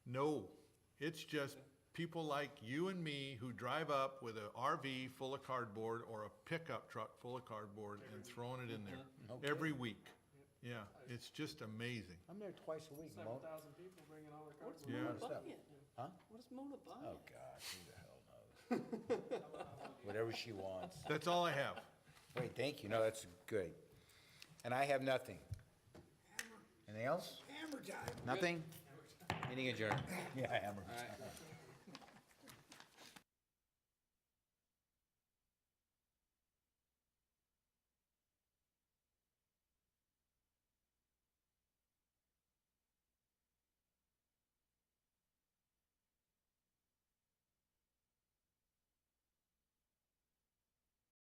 No, it's just people like you and me who drive up with a RV full of cardboard or a pickup truck full of cardboard and throwing it in there every week. Yeah, it's just amazing. I'm there twice a week, Seven Mo. thousand people bringing all their What's cardboard. Yeah. Mona Stuff. buying? Huh? What is Mona buying? Oh, gosh, who the hell knows? Whatever she wants. That's all I have. Wait, thank you. No, that's good. And I have nothing. Anything else? Nothing? Meeting adjourned. Yeah, hammer. All right.